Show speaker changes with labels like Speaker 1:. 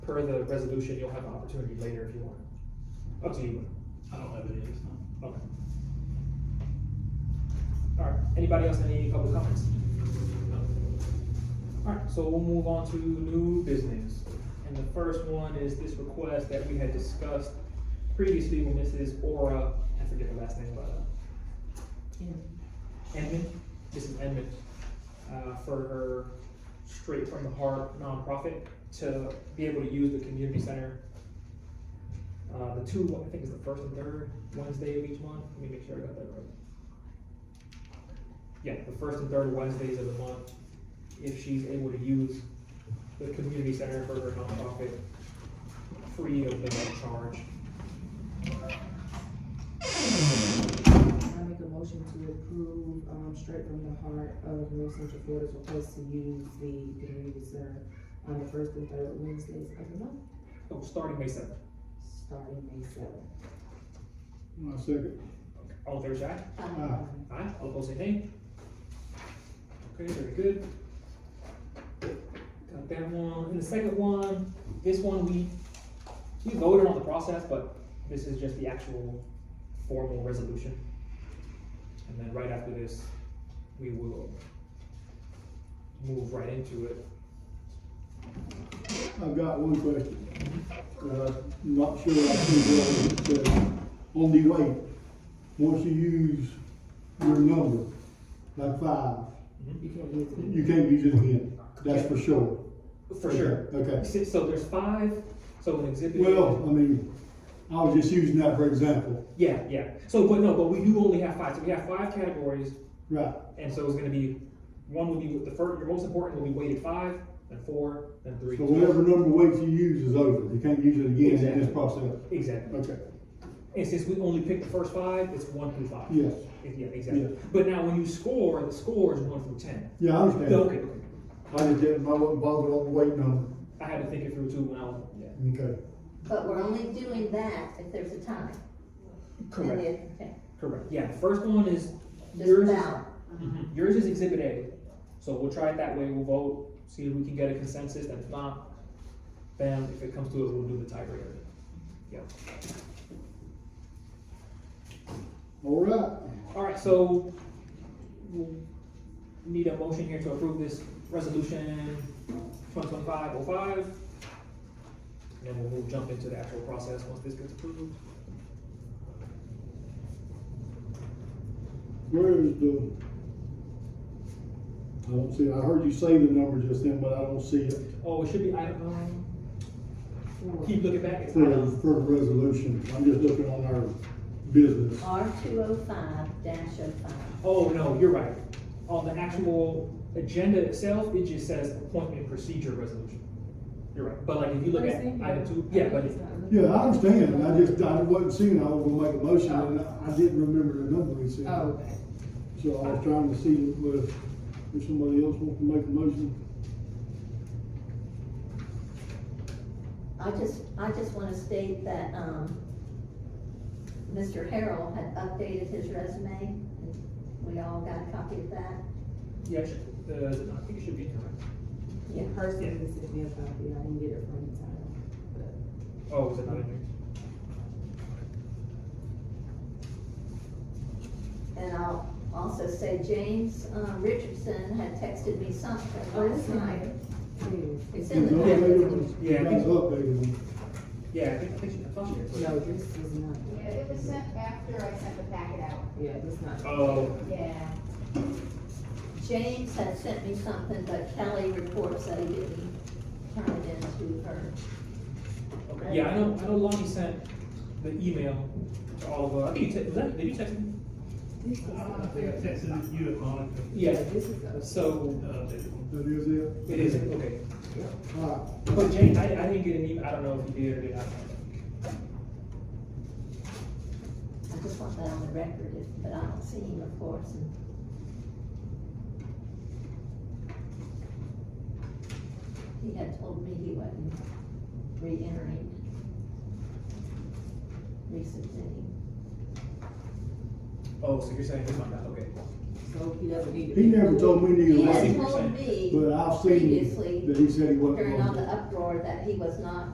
Speaker 1: per the resolution, you'll have an opportunity later if you want. Up to you.
Speaker 2: I don't have any, it's not.
Speaker 1: Okay. All right, anybody else, any public comments? All right, so we'll move on to new business. And the first one is this request that we had discussed previously with Mrs. Ora, I forget her last name, but, uh, Edmund, Mrs. Edmund, uh, for her Straight from the Heart nonprofit to be able to use the community center. Uh, the two, I think it's the first and third Wednesday of each month, let me make sure I got that right. Yeah, the first and third Wednesdays of the month, if she's able to use the community center for her nonprofit, free of the charge.
Speaker 3: I make a motion to approve, um, straight from the heart of North Central Florida's request to use the community center on the first and third Wednesdays of the month,
Speaker 1: Oh, starting May seventh,
Speaker 3: starting May seventh.
Speaker 4: My second.
Speaker 1: all in favor, say aye.
Speaker 4: Aye.
Speaker 1: Aye, all opposed, say nay. Okay, very good. Got that one, and the second one, this one, we, we voted on the process, but this is just the actual formal resolution. And then right after this, we will move right into it.
Speaker 4: I've got one question. Uh, I'm not sure I can go, but uh, on the way, once you use your number, like five,
Speaker 3: You can't use it.
Speaker 4: you can't use it again. That's for sure.
Speaker 1: For sure.
Speaker 4: Okay.
Speaker 1: Si- So there's five, so an exhibit.
Speaker 4: Well, I mean, I was just using that for example.
Speaker 1: Yeah, yeah, so, but no, but we do only have five, so we have five categories,
Speaker 4: Right,
Speaker 1: And so it's gonna be, one will be the first, your most important will be weighted five, then four, then three.
Speaker 4: so whatever number weight you use is over. You can't use it again in this
Speaker 1: Exactly.
Speaker 4: process.
Speaker 1: Exactly.
Speaker 4: Okay,
Speaker 1: And since we only picked the first five, it's one through five.
Speaker 4: yes.
Speaker 1: Yeah, exactly.
Speaker 4: Yeah.
Speaker 1: But now when you score, the score is one through ten.
Speaker 4: Yeah, I understand.
Speaker 1: Okay, okay.
Speaker 4: I just didn't, I wasn't bothered on the weight number.
Speaker 1: I had to think it through too when I was, yeah.
Speaker 4: Okay.
Speaker 5: But we're only doing that if there's a time. And if, okay,
Speaker 1: Correct, yeah, the first one is yours.
Speaker 5: just
Speaker 1: is-
Speaker 5: ballot.
Speaker 1: Mhm. Yours is exhibit A, so we'll try it that way, we'll vote, see if we can get a consensus, and if not, then if it comes to it, we'll do the tiebreaker. Yeah.
Speaker 4: All right.
Speaker 1: Alright, so we'll need a motion here to approve this resolution twenty twenty-five oh five. And then we'll, we'll jump into the actual process once this gets approved.
Speaker 4: Where is the? I don't see, I heard you say the number just then, but I don't see it
Speaker 1: Oh, it should be item, um,
Speaker 3: Four.
Speaker 1: keep looking back, it's
Speaker 4: for,
Speaker 1: item,
Speaker 4: for the resolution. I'm just looking on our business.
Speaker 5: R two oh five dash oh five.
Speaker 1: oh, no, you're right. On the actual agenda itself, it just says appointment procedure resolution. You're right, but like if you look at item two, yeah, but it's,
Speaker 4: Yeah, I understand. I just, I wasn't seeing, it. I was gonna make a motion and I didn't remember the number he said.
Speaker 3: Oh, okay.
Speaker 4: So I was trying to see if, uh, if somebody else wants to make a motion.
Speaker 5: I just, I just wanna state that, um, Mr. Harrell had updated his resume, and we all got a copy of that.
Speaker 1: yeah, it should- uh, I think it should be in there, right?
Speaker 3: Yeah, personally, this is me a copy, I didn't get it from the town, but
Speaker 1: Oh, is it not in there?
Speaker 5: And I'll also say James, uh, Richardson had texted me something last night.
Speaker 3: please.
Speaker 5: It's
Speaker 4: You
Speaker 5: in the
Speaker 4: guys
Speaker 5: packet.
Speaker 4: updated-
Speaker 1: Yeah.
Speaker 4: You guys updated them.
Speaker 1: Yeah, I think, I think she, I thought she did.
Speaker 3: No, this is not,
Speaker 6: Yeah, it was sent after I sent the packet out.
Speaker 3: yeah, this is not.
Speaker 1: Oh,
Speaker 6: Yeah.
Speaker 5: James had sent me something, but Kelly reports that he didn't turn it in to her.
Speaker 1: Okay, yeah, I know, I know Lonnie sent the email to all of us, I think you, te- was that, did you text me?
Speaker 3: This is
Speaker 2: Uh, I
Speaker 3: not.
Speaker 2: think I texted you, Monica. Uh,
Speaker 3: Yeah,
Speaker 1: Yeah,
Speaker 3: this is. not-
Speaker 1: so,
Speaker 4: That is it?
Speaker 1: it is, okay,
Speaker 4: All right.
Speaker 1: but Jane, I, I didn't get an email, I don't know if you did or did not.
Speaker 5: I just want that on the record, if- but I don't see him, of course. and- He had told me he wasn't re-entering, resubmitting.
Speaker 1: Oh, so you're saying he might not, okay,
Speaker 3: So he doesn't need it.
Speaker 4: He never told me neither
Speaker 5: He
Speaker 4: one,
Speaker 5: had
Speaker 1: you're
Speaker 5: told
Speaker 1: saying.
Speaker 5: me
Speaker 4: but I've seen
Speaker 5: previously,
Speaker 4: that he said he wasn't.
Speaker 5: during
Speaker 4: going
Speaker 5: all
Speaker 4: to.
Speaker 5: the uproar, that he was not